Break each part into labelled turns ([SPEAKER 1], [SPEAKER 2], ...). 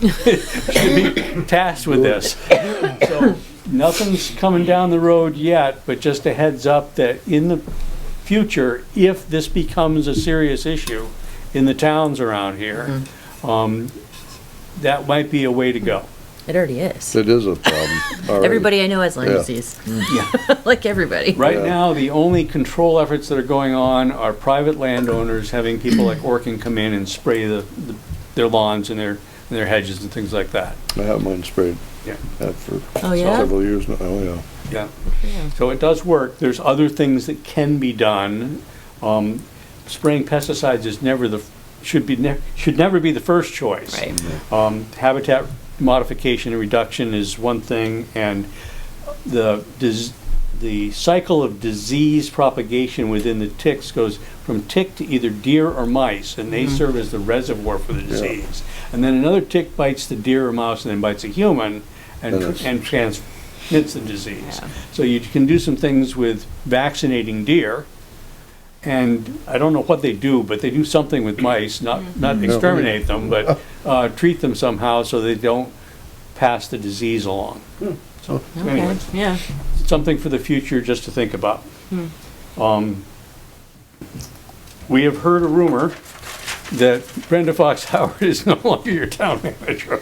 [SPEAKER 1] should be tasked with this. So Nothing's coming down the road yet, but just a heads up that in the future, if this becomes a serious issue in the towns around here, um, that might be a way to go.
[SPEAKER 2] It already is.
[SPEAKER 3] It is a problem. already.
[SPEAKER 2] Everybody I know has Lyme
[SPEAKER 3] Yeah.
[SPEAKER 2] disease,
[SPEAKER 1] Yeah.
[SPEAKER 2] like everybody.
[SPEAKER 1] Right
[SPEAKER 3] Yeah.
[SPEAKER 1] now, the only control efforts that are going on are private landowners having people like Orkin come in and spray the, the- their lawns and their, and their hedges and things like that.
[SPEAKER 3] I have mine sprayed.
[SPEAKER 1] Yeah.
[SPEAKER 3] Had for
[SPEAKER 2] Oh, yeah?
[SPEAKER 3] several years now. Oh, yeah.
[SPEAKER 1] Yeah. So it does work. There's other things that can be done. Um, spraying pesticides is never the, should be, ne- should never be the first choice.
[SPEAKER 2] Right.
[SPEAKER 1] Um, habitat modification and reduction is one thing, and the, dis- the cycle of disease propagation within the ticks goes from tick to either deer or mice, and they serve as the reservoir for the disease. And then another tick bites the deer or mouse and then bites a human and,
[SPEAKER 3] And
[SPEAKER 1] tr-
[SPEAKER 3] it's-
[SPEAKER 1] and transmits the disease.
[SPEAKER 2] Yeah.
[SPEAKER 1] So you can do some things with vaccinating deer, and I don't know what they do, but they do something with mice,
[SPEAKER 2] Mm-hmm.
[SPEAKER 1] not, not exterminate them, but uh, treat them somehow so they don't pass the disease along. So
[SPEAKER 2] Okay,
[SPEAKER 1] anyway,
[SPEAKER 2] Yeah.
[SPEAKER 1] something for the future just to think about.
[SPEAKER 2] Hmm.
[SPEAKER 1] Um, We have heard a rumor that Brenda Fox Howard is no longer your town manager.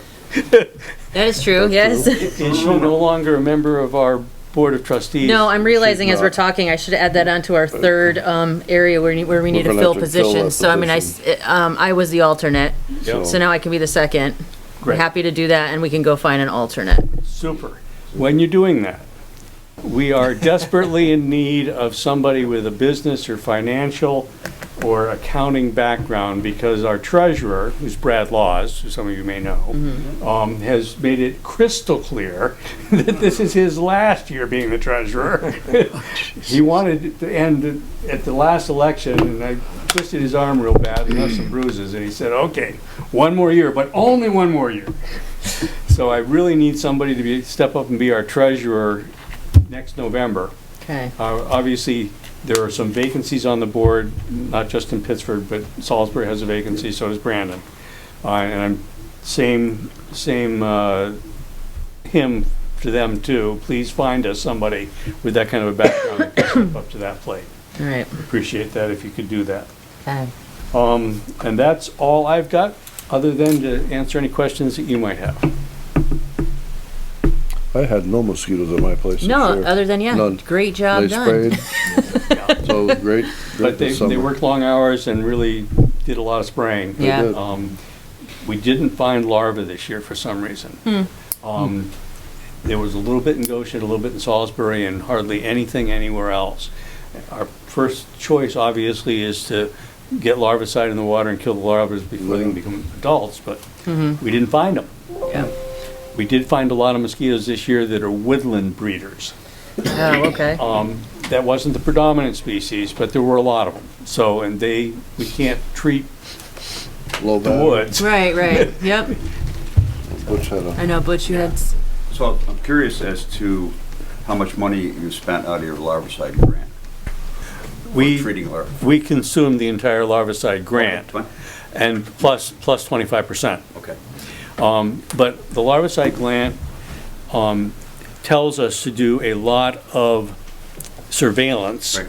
[SPEAKER 2] That is true, yes.
[SPEAKER 1] Is she no longer a member of our Board of Trustees?
[SPEAKER 2] No, I'm realizing as
[SPEAKER 3] not.
[SPEAKER 2] we're talking, I should add that onto our third, um, area where, we- where we need to
[SPEAKER 3] gonna
[SPEAKER 2] fill
[SPEAKER 3] have to fill that
[SPEAKER 2] positions. So I mean, I, s- um, I was the alternate,
[SPEAKER 1] Yep.
[SPEAKER 2] so now I can be the second.
[SPEAKER 1] Great.
[SPEAKER 2] Happy to do that and we can go find an alternate.
[SPEAKER 1] Super. When you're doing that, we are desperately in need of somebody with a business or financial or accounting background because our treasurer, who's Brad Laws, who some of you may know, um, has made it crystal clear that this is his last year being the treasurer. He wanted to end at the last election, and I twisted his arm real bad and left some bruises, and he said, okay, one more year, but only one more year. So I really need somebody to be, step up and be our treasurer next November.
[SPEAKER 2] Okay.
[SPEAKER 1] Uh, Obviously, there are some vacancies on the board, not just in Pittsford, but Salisbury has a vacancy, so does Brandon. Uh, And I'm, same, same uh, hymn to them too. Please find us somebody with that kind of a background that can step up to that plate.
[SPEAKER 2] All right.
[SPEAKER 1] Appreciate that if you could do that.
[SPEAKER 2] Okay.
[SPEAKER 1] Um, And that's all I've got, other than to answer any questions that you might have.
[SPEAKER 3] I had no mosquitoes at my place. this
[SPEAKER 2] No,
[SPEAKER 3] year.
[SPEAKER 2] other than, yeah,
[SPEAKER 3] None.
[SPEAKER 2] great job
[SPEAKER 3] They
[SPEAKER 2] done.
[SPEAKER 3] sprayed. So great,
[SPEAKER 1] But
[SPEAKER 3] great
[SPEAKER 1] they,
[SPEAKER 3] this
[SPEAKER 1] they
[SPEAKER 3] summer.
[SPEAKER 1] worked long hours and really did a lot of spraying.
[SPEAKER 2] Yeah.
[SPEAKER 3] did.
[SPEAKER 1] Um, We didn't find larvae this year for some reason. Um, There was a little bit in Goshen, a little bit in Salisbury, and hardly anything anywhere else. Our first choice, obviously, is to get larvicide in the water and kill the larvae before they can
[SPEAKER 3] Mhm.
[SPEAKER 1] become adults, but we didn't find them.
[SPEAKER 2] Yeah.
[SPEAKER 1] We did find a lot of mosquitoes this year that are woodland breeders.
[SPEAKER 2] Oh, okay.
[SPEAKER 1] Um, That wasn't the predominant species, but there were a lot of them. So, and they, we can't treat
[SPEAKER 3] Low
[SPEAKER 1] the
[SPEAKER 3] bat,
[SPEAKER 1] woods.
[SPEAKER 2] Right, right. Yep.
[SPEAKER 3] Which had a,
[SPEAKER 2] I know, Butch, you had, s-
[SPEAKER 4] So I'm curious as to how much money you spent out of your larvicide grant, for
[SPEAKER 1] We,
[SPEAKER 4] treating larvae.
[SPEAKER 1] we consumed the entire larvicide grant
[SPEAKER 4] Fine?
[SPEAKER 1] and plus, plus 25%.
[SPEAKER 4] Okay.
[SPEAKER 1] Um, But the larvicide gland um, tells us to do a lot of surveillance
[SPEAKER 4] Right.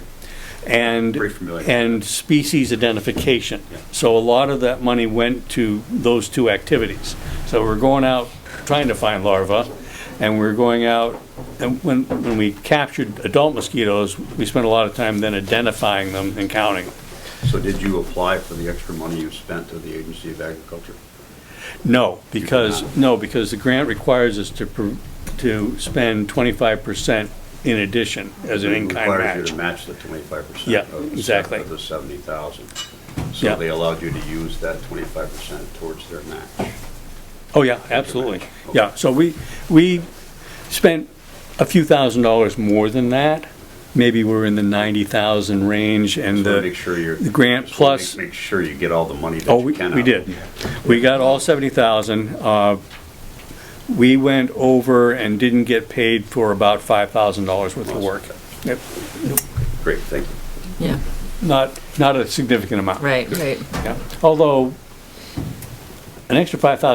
[SPEAKER 1] and,
[SPEAKER 4] Very familiar.
[SPEAKER 1] and species identification.
[SPEAKER 4] Yeah.
[SPEAKER 1] So a lot of that money went to those two activities. So we're going out trying to find larvae, and we're going out, and when, when we captured adult mosquitoes, we spent a lot of time then identifying them and counting them.
[SPEAKER 4] So did you apply for the extra money you spent to the Agency of Agriculture?
[SPEAKER 1] No, because,
[SPEAKER 4] cannot.
[SPEAKER 1] no, because the grant requires us to, pr- to spend twenty-five percent in addition as an
[SPEAKER 4] It
[SPEAKER 1] in-kind
[SPEAKER 4] Requires you
[SPEAKER 1] match.
[SPEAKER 4] to match the twenty-five percent.
[SPEAKER 1] Yeah, exactly.
[SPEAKER 4] Of the seventy thousand.
[SPEAKER 1] Yeah.
[SPEAKER 4] So they allowed you to use that twenty-five percent towards their match.
[SPEAKER 1] Oh, yeah, absolutely. Yeah, so we, we spent a few thousand dollars more than that. Maybe we're in the ninety thousand range and
[SPEAKER 4] Just wanna
[SPEAKER 1] the.
[SPEAKER 4] make sure you're.
[SPEAKER 1] the grant
[SPEAKER 4] just wanna make-
[SPEAKER 1] plus-
[SPEAKER 4] Make sure you get all the money that
[SPEAKER 1] Oh,
[SPEAKER 4] you
[SPEAKER 1] we,
[SPEAKER 4] can.
[SPEAKER 1] we
[SPEAKER 4] out of
[SPEAKER 1] did.
[SPEAKER 4] it.
[SPEAKER 1] We got all seventy thousand. Uh, we went over and didn't get paid for about five thousand dollars worth of work. Yep.
[SPEAKER 4] Great, thank you.
[SPEAKER 2] yeah,
[SPEAKER 1] Not, not a significant amount.
[SPEAKER 2] right, right.
[SPEAKER 1] Yeah. Although, an extra five thousand